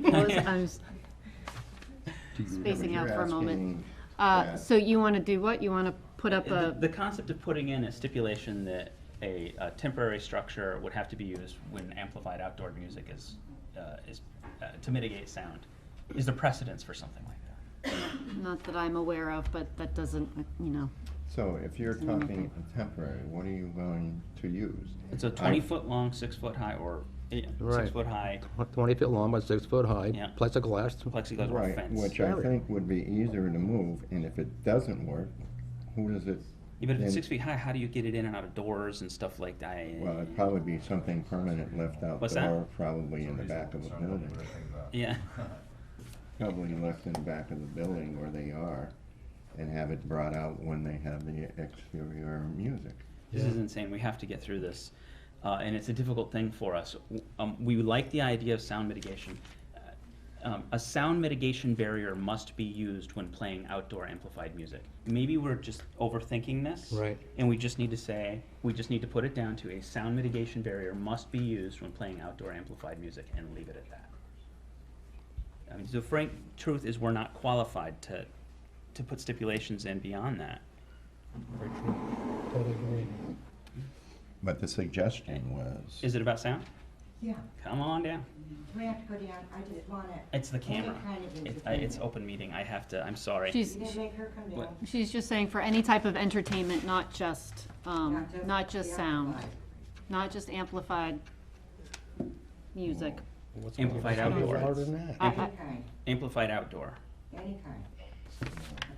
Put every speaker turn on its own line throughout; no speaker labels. I was
Do you-
spacing out
You're
for a moment.
asking
Uh,
that-
so you wanna do what? You wanna put up
The, the
a,
concept of putting in a stipulation that a, a temporary structure would have to be used when amplified outdoor music is, uh, is, uh, to mitigate sound, is the precedence for something like that.
not that I'm aware of, but that doesn't, uh, you know.
So if you're
Doesn't mean
talking temporary, what are you going to use?
It's a twenty foot long, six foot high, or, yeah,
Right.
six foot high
Twenty feet long by six foot high,
Yeah.
plexiglass.
plexiglass or
Right,
fence.
which uh, I
Barrier.
think would be easier to move, and if it doesn't work, who does it?
Yeah, but if it's
then-
six feet high, how do you get it in and out of doors and stuff like that?
Well, it'd probably be something permanent left
What's that?
outdoor, probably in the back of a building.
Yeah,
Probably left in the back of the building where they are, and have it brought out when they have the exterior music.
this is insane. We have to get through this. Uh, and it's a difficult thing for us. W- Um, we like the idea of sound mitigation. Uh, Um, a sound mitigation barrier must be used when playing outdoor amplified music. Maybe we're just overthinking this.
Right.
And we just need to say, we just need to put it down to a sound mitigation barrier must be used when playing outdoor amplified music and leave it at that. I mean, the frank truth is we're not qualified to, to put stipulations in beyond that.
Totally agree.
But the suggestion was.
Is it about sound?
Yeah,
Come on down.
we have to go down, I just wanna.
It's the
Well, it
camera.
kind of is
It's,
the
I- it's
camera.
open meeting. I have to, I'm sorry.
She's,
You didn't make her come
What?
down.
she's just saying for any type of entertainment, not just, um, not just
the
sound,
outside.
not just amplified music.
Amplified outdoor.
I-
Any
I-
kind,
Amplified outdoor.
any kind.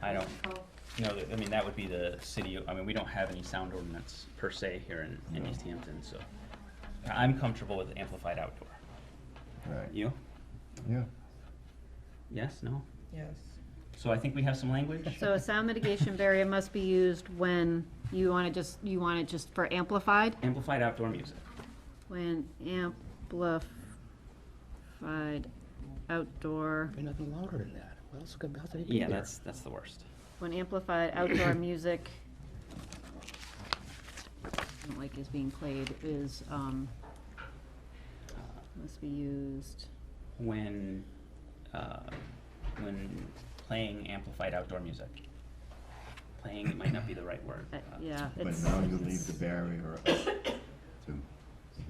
I don't-
Acoustical,
No, th- I mean, that would be the city, I mean, we don't have any sound ordinance per se here in, in East Hampton, so. I- I'm comfortable with amplified outdoor.
Right,
You?
yeah.
Yes, no?
Yes.
So I think we have some language?
So a sound mitigation barrier must be used when you wanna just, you want it just for amplified?
Amplified outdoor music.
When amplified outdoor,
Be nothing louder than that. What else could, how's that?
Yeah, that's, that's the worst.
when amplified outdoor music, I don't like is being played, is, um, must be used,
Uh, When, uh, when playing amplified outdoor music. Playing might not be the right word.
uh,
uh,
yeah,
But
it's,
now you leave the barrier up to them.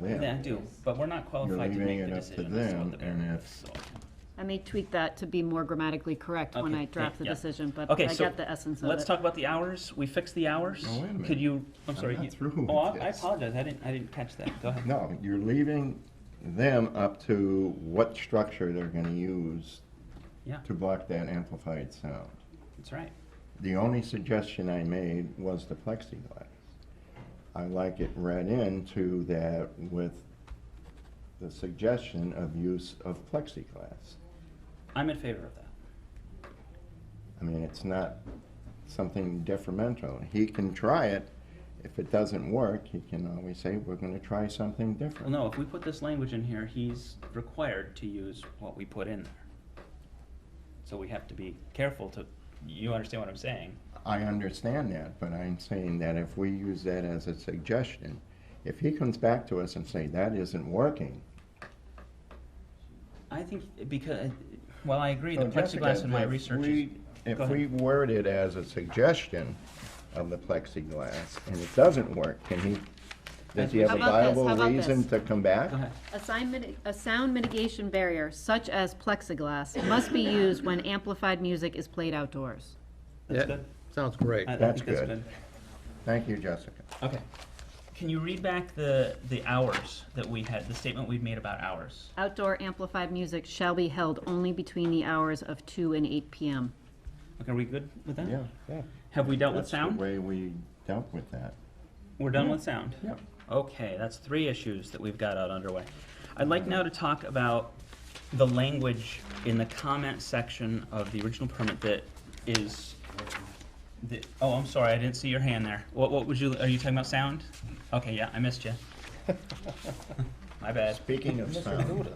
Yeah, I do, but we're not qualified to
leaving
make
it
the
up to
decision as to
them,
what the
and
barrier
if-
is, so.
I may tweak that to be more grammatically correct when
Okay,
I draft the
yeah.
decision, but
Okay,
I
so
got the essence of it.
Let's talk about the hours, we fixed the hours.
No, Oh, wait a minute.
Could you, I'm sorry.
not
you-
through
Oh,
with
I I
this.
apologize, I didn't, I didn't catch that, go ahead.
No, you're leaving them up to what structure they're gonna use
Yeah,
to block that amplified sound.
that's right.
The only suggestion I made was the plexiglass. I like it read into that with the suggestion of use of plexiglass.
I'm in favor of that.
I mean, it's not something detrimental. He can try it. If it doesn't work, he can always say, we're gonna try something
Well,
different.
no, if we put this language in here, he's required to use what we put in there. So we have to be careful to, you understand what I'm saying?
I understand that, but I'm saying that if we use that as a suggestion, if he comes back to us and say, that isn't working,
I think, because, well, I agree, the
So, Jessica,
plexiglass in my
if
research is.
we-
Go
If
ahead.
we word it as a suggestion of the plexiglass, and it doesn't work, can he, does he have
How
a
about this?
viable
How about
reason
this?
to come back?
Go ahead.
A sign miti- a sound mitigation barrier such as plexiglass must be used when amplified music is played outdoors.
That's good.
Sounds great.
I- I
That's
think that's
good.
good.
Thank you, Jessica.
Okay. Can you read back the, the hours that we had, the statement we've made about hours?
Outdoor amplified music shall be held only between the hours of two and eight PM.
Okay, are we good with that?
Yeah, yeah.
Have we dealt with
That's the
sound?
way we dealt with that.
We're done with sound?
Yep.
Okay, that's three issues that we've got out underway. I'd like now to talk about the language in the comment section of the original permit that is, that, oh, I'm sorry, I didn't see your hand there. What, what would you, are you talking about sound? Okay, yeah, I missed you. My bad.
Speaking of sound,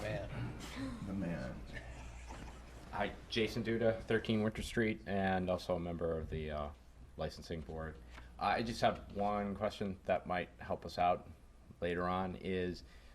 Man.
the man.
Hi, Jason Duda, 13 Winter Street, and also a member of the uh, licensing board. I just have one question that might help us out later on is